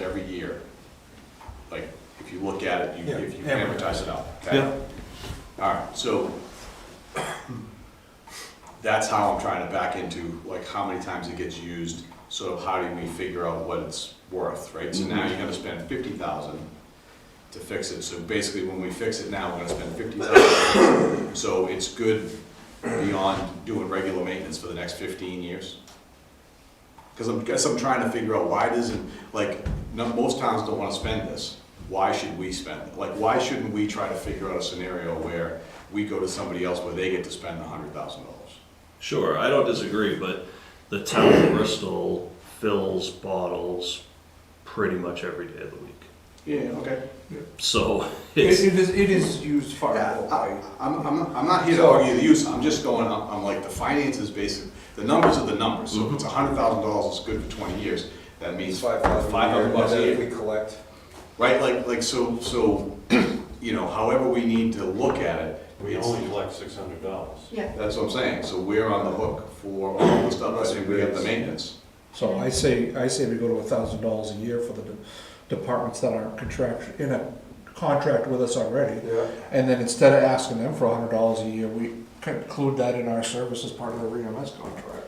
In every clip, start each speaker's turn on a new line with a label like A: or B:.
A: year. Like, if you look at it, you,
B: Yeah,
A: if you advertise
B: advertise.
A: it out, okay? All right, so that's how I'm trying to back into, like, how many times it gets used, so how do we figure out what it's worth, right? So now you're gonna spend fifty thousand to fix it, so basically, when we fix it now, we're gonna spend fifty thousand. So it's good beyond doing regular maintenance for the next fifteen years? Because I'm, guess I'm trying to figure out why doesn't, like, no, most towns don't want to spend this. Why should we spend it? Like, why shouldn't we try to figure out a scenario where we go to somebody else where they get to spend a hundred thousand dollars?
C: Sure, I don't disagree, but the town of Bristol fills bottles pretty much every day of the week.
A: Yeah, okay.
C: So
B: It
C: it's,
B: it is, it is used far more,
A: I,
B: right?
A: I'm, I'm, I'm not here to argue the use, I'm just going, I'm, I'm like, the finances basic, the numbers are the numbers. So if it's a hundred thousand dollars, it's good for twenty years, that means five hundred bucks a year.
D: we collect.
A: Right, like, like, so, so, you know, however we need to look at it.
E: We
A: it's-
E: only collect six hundred dollars.
F: Yeah,
A: That's what I'm saying, so we're on the hook for all the stuff, I think we have the maintenance.
B: So I say, I say we go to a thousand dollars a year for the de- departments that aren't contract, in a contract with us already.
D: Yeah.
B: And then instead of asking them for a hundred dollars a year, we could include that in our service as part of the EMS contract.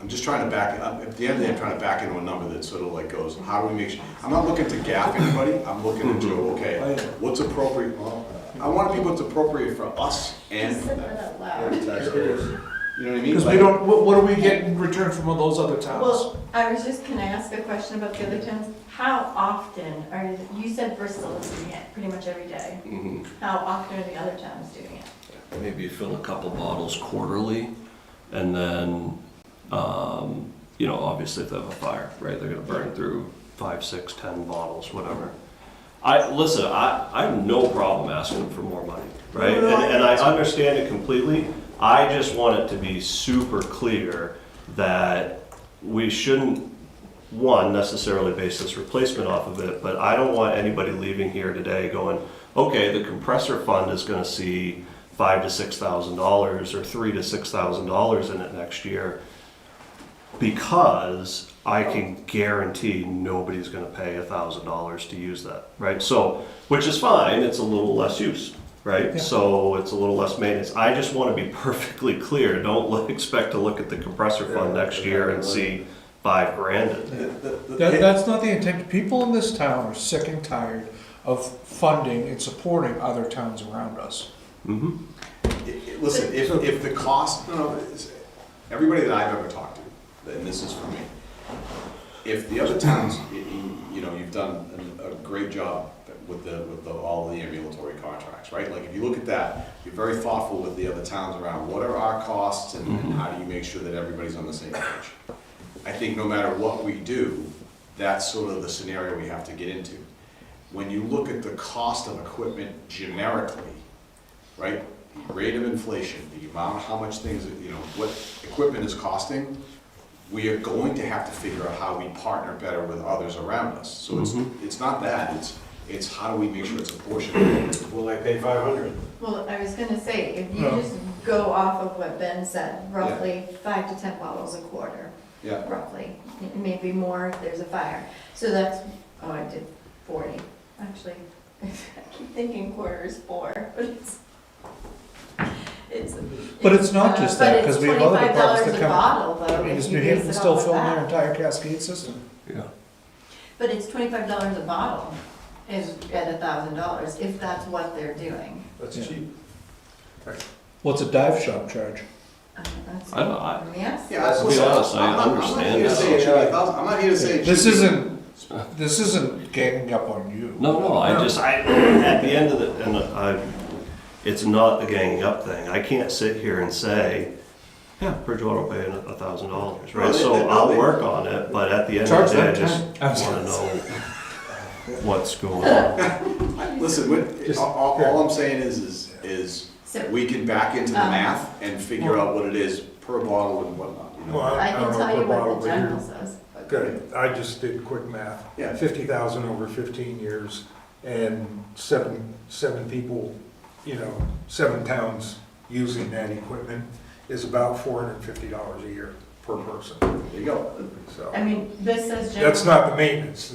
A: I'm just trying to back, I'm- at the end of the day, I'm trying to back into a number that sort of like goes, how do we make sure? I'm not looking to gaff anybody, I'm looking to do, okay,
B: Mm-hmm.
A: what's appropriate, well, I wanna be what's appropriate for us and
F: just
A: for
F: said
A: them,
F: that out loud.
A: you know what I mean?
B: Because we
A: Like-
B: don't, what, what do we get in return from all those other towns?
F: Well, I was just, can I ask a question about the other towns? How often are, you said Bristol is doing it pretty much every day. How often are the other towns doing it?
C: maybe you fill a couple bottles quarterly and then, um, you know, obviously if they have a fire, right, they're gonna burn through five, six, ten bottles, whatever. I, listen, I, I have no problem asking for more money, right? And, and I understand it completely. I just want it to be super clear that we shouldn't, one, necessarily base this replacement off of it, but I don't want anybody leaving here today going, okay, the compressor fund is gonna see five to six thousand dollars or three to six thousand dollars in it next year because I can guarantee nobody's going to pay a thousand dollars to use that, right? So, which is fine. It's a little less use, right?
B: Yeah.
C: So it's a little less maintenance. I just want to be perfectly clear. Don't look, expect to look at the compressor fund
D: Yeah.
C: next year and see five grand. in it.
B: That, that's not the intent, people in this town are sick and tired of funding and supporting other towns around us.
A: It- it- Listen, if, if the cost, no, no, it's- everybody that I've ever talked to, and this is for me, if the other towns, y- y- you know, you've done a a great job with the, with the, all the ambulatory contracts, right? Like, if you look at that, you're very thoughtful with the other towns around, what are our costs and and how do you make sure that everybody's on the same page? I think no matter what we do, that's sort of the scenario we have to get into. When you look at the cost of equipment generically, right? The rate of inflation, the amount, how much things, you know, what equipment is costing, we are going to have to figure out how we partner better with others around us. So it's,
C: Mm-hmm.
A: it's not that, it's, it's how do we make sure it's apportioned?
E: Will I pay five hundred?
F: Well, I was gonna say, if you
B: No.
F: just go off of what Ben said, roughly five to 10 bottles a quarter,
A: Yeah,
F: roughly, M- maybe more if there's a fire. So that's, oh, I did 40, actually. I keep thinking quarter is four, but it's, it's.
B: But it's not just
F: uh,
B: that, 'cause we have other departments that come-
F: But it's $25 a bottle, though,
B: Is
F: if
B: New
F: you base
B: Haven
F: it
B: still
F: off of
B: filling their
F: that.
B: entire cascade system?
C: Yeah.
F: But it's twenty-five dollars a bottle is at a thousand dollars, if that's what they're doing.
B: Yeah.
D: That's cheap.
B: What's a dive shop charge?
F: Uh, that's-
C: I don't- I-
F: Yes.
A: yeah.
D: Let's be
A: listen,
C: honest, I
A: I'm not- I'm not
C: understand
A: here to
C: that.
A: say it should be a thousand- I'm not here to say. it
B: This
A: should be-
B: isn't, this isn't ganging up on you.
C: No, no, I just, I, at the end of the, and I, it's not a ganging up thing. I can't sit here and say, yeah, Bridgewater will pay a thousand dollars,
A: No,
C: right?
A: they- they-
C: So
A: no,
C: I'll
A: they-
C: work on it, but at the end
B: Charge
C: of the day, I
B: them ten. I was
C: just wanna
B: gonna
C: know what's going on.
A: I- Listen, what,
B: Just-
A: all, all I'm saying is, is, is
F: So-
A: we can back into the
F: Um,
A: math and figure out what it is per bottle and whatnot, you know?
G: Well,
F: I
G: I
F: can
G: don't
F: tell
G: know
F: you
G: what
F: what
G: bottle
F: the
G: you're.
F: general says. but-
G: Good, I just did quick math.
A: Yeah.
G: Fifty thousand over fifteen years and seven, seven people, you know, seven towns using that equipment is about four hundred and fifty dollars a year per person,
A: There you go.
G: so.
F: I mean, this says general.
G: That's not the maintenance,